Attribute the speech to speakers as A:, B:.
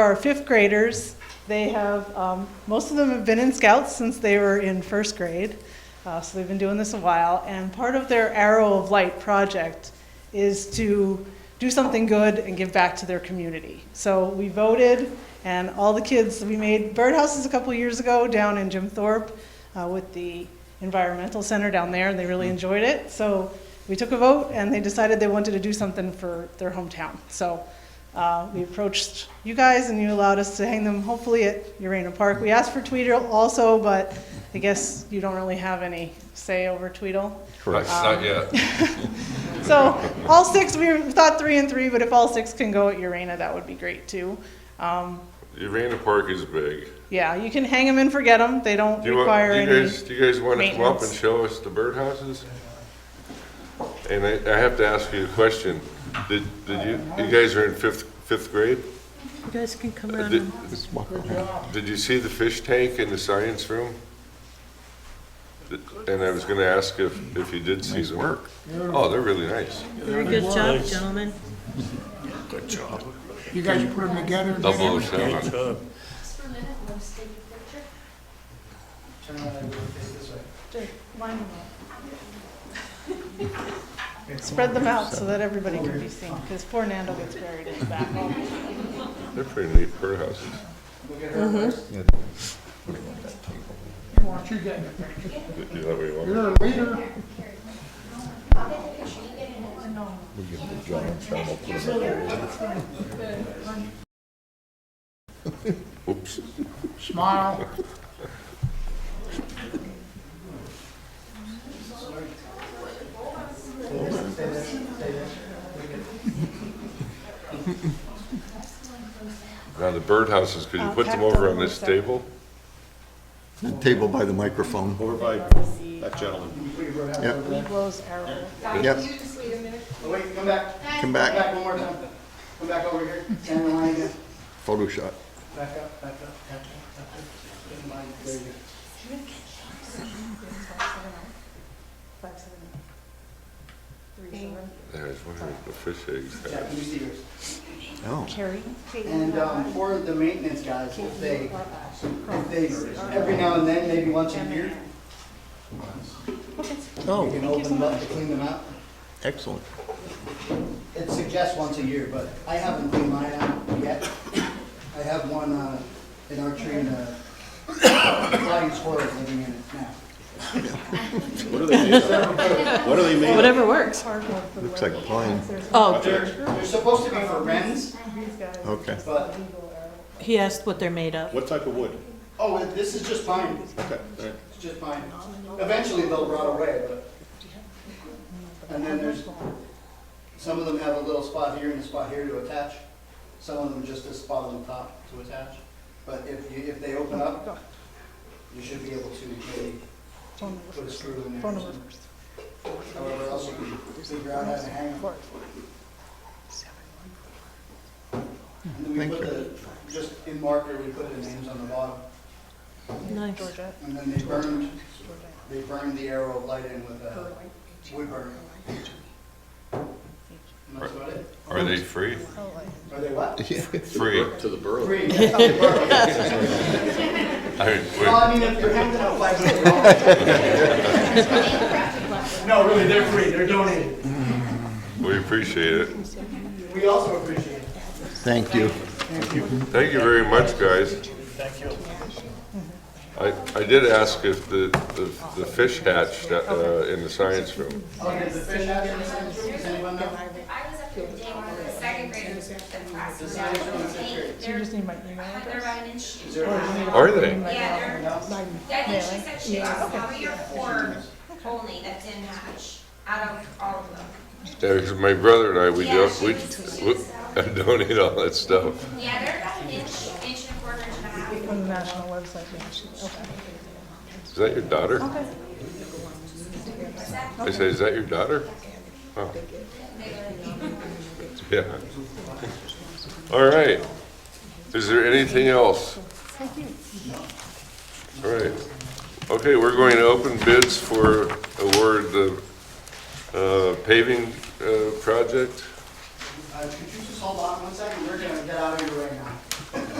A: are fifth graders. They have, um, most of them have been in scouts since they were in first grade, uh, so they've been doing this a while. And part of their Arrow of Light project is to do something good and give back to their community. So we voted, and all the kids, we made birdhouses a couple years ago down in Jim Thorpe uh, with the environmental center down there, and they really enjoyed it. So we took a vote, and they decided they wanted to do something for their hometown. So uh, we approached you guys, and you allowed us to hang them, hopefully, at Urana Park. We asked for Tweedle also, but I guess you don't really have any say over Tweedle.
B: Correct. Not yet.
A: So all six, we thought three and three, but if all six can go at Urana, that would be great too. Um,
B: Urana Park is big.
A: yeah, you can hang them and forget them. They don't
B: Do you, want,
A: require
B: do you
A: any.
B: guys, do you guys want to come up and
A: maintenance.
B: show us the birdhouses? And I, I have to ask you a question. Did, did you, you guys are in fifth, fifth grade?
C: You guys can come
B: Uh,
C: around
B: did-
C: and
B: Did you see the fish tank in the science room? Th- And I was gonna ask if, if you did see them. Work. Oh, they're really nice.
C: do a good job, gentlemen.
D: You guys put them together? and
B: Double O
D: did
B: seven.
E: Just for a minute, let us take a picture.
F: Turn around and rotate this way.
A: Line 'em up. Spread them out so that everybody can be seen, because poor Nando gets buried in the back.
B: They're pretty neat birdhouses.
F: Look at her first.
D: everything? Why don't you get in the picture?
B: Is that what you want?
D: You're a leader.
B: Oops.
D: Smile.
B: Now, the birdhouses, could you
A: Uh,
B: put them
A: packed
B: over
A: up on
B: on this
A: the side.
B: table?
G: The table by the microphone.
H: Or by that gentleman.
G: Yep,
A: Blows arrow.
G: Yep.
E: Can you just wait a minute?
F: Oh, wait, come back.
G: come
F: Come
G: back,
F: back one more time. Come back over here. Stand in line again.
G: photo shot.
F: Back up, back up, back up, back up. Stand in line. There you go.
A: Five, seven, eight. Three, seven.
B: Yeah, I was wondering if the fish eggs had.
F: Yeah, can you see yours?
G: Oh,
A: Carrie.
F: And um, for the maintenance guys, if they, if they, every now and then, maybe once a year, you
G: oh,
F: can open them up to clean them out.
G: excellent.
F: It suggests once a year, but I haven't cleaned mine out yet. I have one uh, in our tree, and a flying squirrel living in it now.
H: What are they made of? What are they made of?
C: Whatever works.
G: Looks like pine.
C: Oh,
F: They're supposed to be for wrens,
G: Okay.
F: but,
C: he asked what they're made of.
H: What type of wood?
F: oh, this is just pine,
H: Okay, all right.
F: it's just pine. Eventually they'll rot away, but. And then there's, some of them have a little spot here and a spot here to attach. Some of them just a spot on the top to attach. But if you, if they open up, you should be able to maybe put a screw in there. or
A: Phone number
F: something.
A: first.
F: However else you can figure out how to hang them. And then we
G: Thank
F: put the, just in marker, we put the names on the bottom,
C: Nice.
A: Georgia.
F: and then they burned, they burned the arrow of light in with a wood burn. And that's about it.
B: Are they free?
F: Are they what?
B: Free.
H: To the burrow.
F: Free. that's how they burn it.
B: I mean, wait.
F: Well, I mean, if you're hanging out five feet long. No, really, they're free, they're donated.
B: We appreciate it.
F: We also appreciate it.
G: Thank you.
B: Thank you very much, guys. Thank you. I, I did ask if the, the the fish hatched uh, in the science room.
F: Oh, did the fish hatch in the science room? Does anyone know? Uh,
E: I was up here today, one of the second graders was in class,
F: The
E: and
F: science room is
E: they-
F: fifth grade.
A: You
E: they're,
A: just need my email
E: they're
A: address.
E: about an inch.
F: Is there a room?
B: Are they?
E: Yeah, they're,
F: No?
E: I think she said she was probably your four only that didn't hatch out of all of them.
B: Yeah, because my brother and I, we,
E: Yeah,
B: do-
E: she
B: we
E: was-
B: we- I donate all that stuff.
E: Yeah, they're about an inch, inch and a quarter, inch and a half.
A: On the national website, yeah, she- okay.
B: Is that your daughter? I said, is that your daughter? Oh. Yeah. All right. Is there anything else? All right. Okay, we're going to open bids for award the uh, paving uh, project.
F: Uh, could you just hold on one second? We're gonna get out of here right now.